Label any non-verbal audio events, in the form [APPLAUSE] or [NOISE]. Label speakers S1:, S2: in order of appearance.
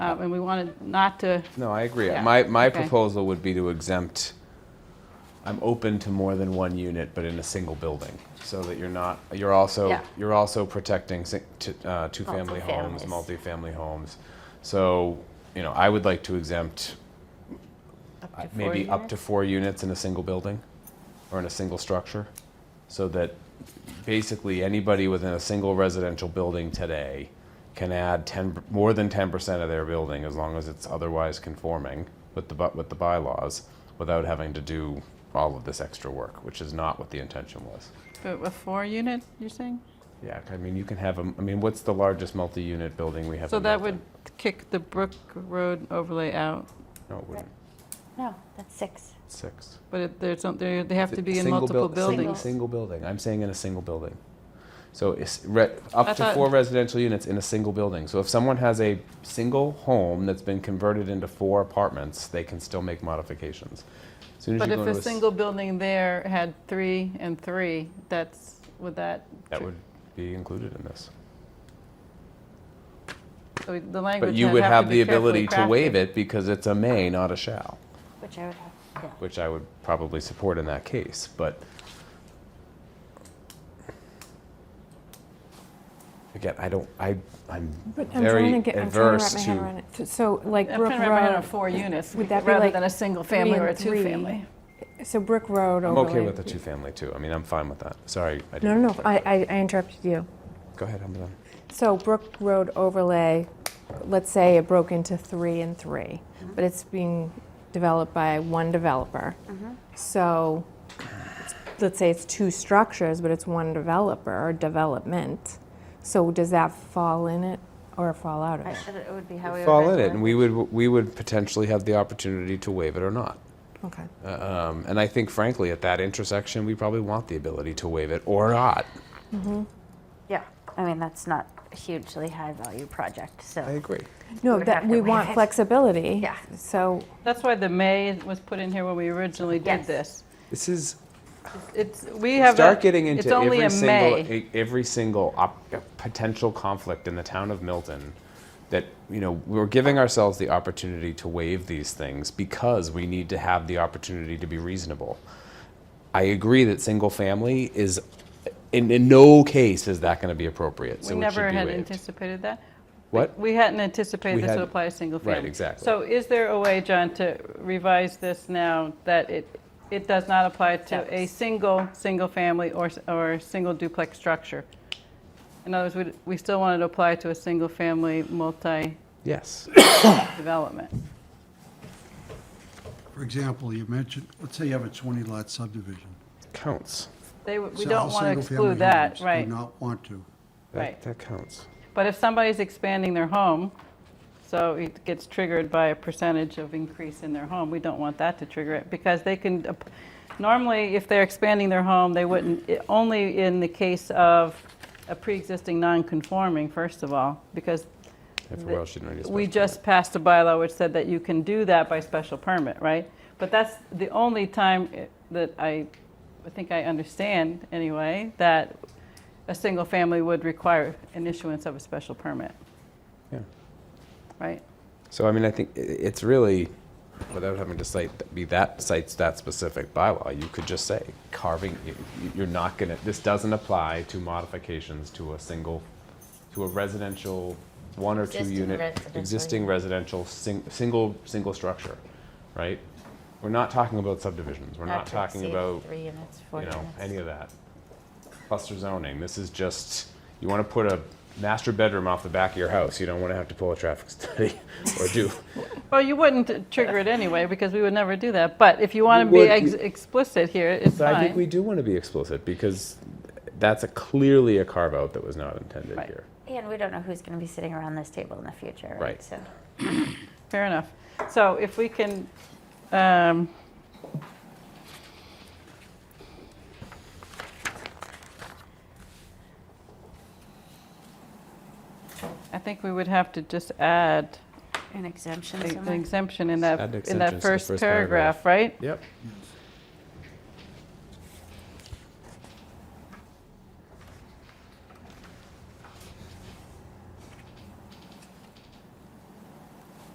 S1: Uh, And we wanted not to,
S2: No, I agree.
S1: Yeah,
S2: My, my
S1: okay.
S2: proposal would be to exempt, I'm open to more than one unit, but in a single building, so that you're not, you're also,
S3: Yeah.
S2: you're also protecting si- t- uh, two-family homes, multifamily homes. So, you know, I would like to exempt uh, maybe up to four units in a single building, or in a single structure, so that basically anybody within a single residential building today can add ten, more than ten percent of their building as long as it's otherwise conforming with the, bu- with the bylaws, without having to do all of this extra work, which is not what the intention was.
S1: a four-unit, you're saying?
S2: Yeah, I mean, you can have, a- I mean, what's the largest multi-unit building we have?
S1: So
S2: in
S1: that would
S2: Milton?
S1: kick the Brook Road overlay out,
S2: No, Oh, it wouldn't,
S3: No, that's six.
S2: six.
S1: but it- there's, some- they they have to be in
S2: Single
S1: multiple
S2: buil- sing-
S1: buildings.
S2: Single building, I'm saying in a single building. So it's re-
S1: I
S2: up to
S1: thought-
S2: four residential units in a single building. So if someone has a single home that's been converted into four apartments, they can still make modifications. As Soon as
S1: But
S2: you
S1: if
S2: go into
S1: a
S2: a s-
S1: single building there had three and three, that's, would that?
S2: That would be included in this.
S1: so The language
S2: But you
S1: has-
S2: would
S1: have
S2: have
S1: to
S2: the
S1: be carefully
S2: ability to waive
S1: crafted.
S2: it because it's a may, not a shall,
S3: Which I would have, yeah.
S2: which I would probably support in that case, but. Again, I don't, I, I'm
S4: But I'm
S2: very
S4: trying to get- I'm trying to
S2: adverse
S4: wrap
S2: to.
S4: my head around it. So- So like
S1: I'm
S4: Brook
S1: trying to wrap my head
S4: Road.
S1: around four units,
S4: Would that be
S1: rather
S4: like
S1: than a single
S4: three
S1: family
S4: and
S1: or a
S4: three?
S1: two-family.
S4: So Brook Road
S2: I'm
S4: overlay.
S2: okay with the two-family too. I mean, I'm fine with that. Sorry. I
S4: No,
S2: didn't
S4: no,
S2: mean
S4: no,
S2: to-
S4: I, I- I interrupted you.
S2: Go ahead, I'm done.
S4: So Brook Road overlay, let's say it broke into three and three,
S1: Mm-hmm.
S4: but it's being developed by one developer.
S1: Mm-hmm.
S4: So let's say it's two structures, but it's one developer or development. So does that fall in it or fall out of
S3: I-
S4: it?
S3: It would be how we would.
S2: Fall in
S3: write
S2: it, and we would, we would potentially have the opportunity to waive it or not.
S4: Okay.
S2: Uh, um, And I think frankly, at that intersection, we probably want the ability to waive it or not.
S3: Yeah, I mean, that's not a hugely high-value project, so.
S2: agree.
S4: No,
S3: would have
S4: that,
S3: to
S4: we
S3: waive
S4: want
S3: it.
S4: flexibility.
S3: Yeah.
S4: So
S1: That's why the may was put in here when we originally did
S3: Yes.
S1: this.
S2: This is,
S1: It's, we have. a-
S2: start getting into
S1: It's only
S2: every
S1: a
S2: single
S1: may.
S2: e- every single op- potential conflict in the town of Milton that you know we're giving ourselves the opportunity to waive these things because we need to have the opportunity to be reasonable. I agree that single family is in, in no case is that going to be appropriate. So
S1: We
S2: it
S1: never
S2: should be
S1: had
S2: waived.
S1: anticipated that.
S2: What?
S1: We hadn't
S2: We
S1: anticipated this would
S2: hadn't-
S1: apply to single
S2: right,
S1: family.
S2: exactly.
S1: So is there a way, John, to revise this now that it, it does not apply to a single, single-family or, s- or single duplex structure? In other words, we, we still wanted to apply to a single-family multi-development.
S2: Yes.
S5: For example, you mentioned, let's say you have a 20-lot subdivision.
S2: Counts.
S1: They, w- we
S5: Sell
S1: don't want to
S5: single-family
S1: exclude that,
S5: homes.
S1: right?
S5: Do not want to.
S2: That,
S1: Right.
S2: that counts.
S1: But if somebody's expanding their home, so it gets triggered by a percentage of increase in their home, we don't want that to trigger it, because they can, ap- normally, if they're expanding their home, they wouldn't, i- only in the case of a pre-existing non-conforming, first of all, because
S2: Everywhere else you don't need a
S1: we
S2: special
S1: just passed a bylaw which said that you can do that by special permit, right? But that's the only time it- that I, I think I understand, anyway, that a single family would require an issuance of a special permit,
S2: permit. Yeah.
S1: right?
S2: So I mean, I think i- it's really, without having to cite be that cites that specific bylaw, you could just say carving. y- y- You're not gonna. This doesn't apply to modifications to a single, to a residential, one or two
S3: Existing
S2: unit,
S3: residential
S2: existing residential sing, single single structure, right? We're not talking about subdivisions. We're not talking about
S3: Three units,
S2: you know, any of that. Cluster zoning, this is just, you want to put a master bedroom off the back of your house, you don't want to have to pull a traffic [LAUGHS] study or do.
S1: Well, you wouldn't trigger it anyway, because we would never do that, but if you want to be
S2: would-
S1: ex- explicit here, it's
S2: So I think we
S1: fine.
S2: do want to be explicit because that's a clearly a carve out that was not intended
S1: Right.
S2: here.
S3: And we don't know who's going to be sitting around this table in the future,
S2: Right.
S3: right? So
S1: Fair enough. So if we can, um, I think we would have to just add
S3: An exemption
S1: the- the
S3: somewhere?
S1: exemption in that,
S2: Add
S1: in
S2: exemptions to
S1: that
S2: the
S1: first
S2: first
S1: paragraph, right?
S2: Yep.
S5: Yes.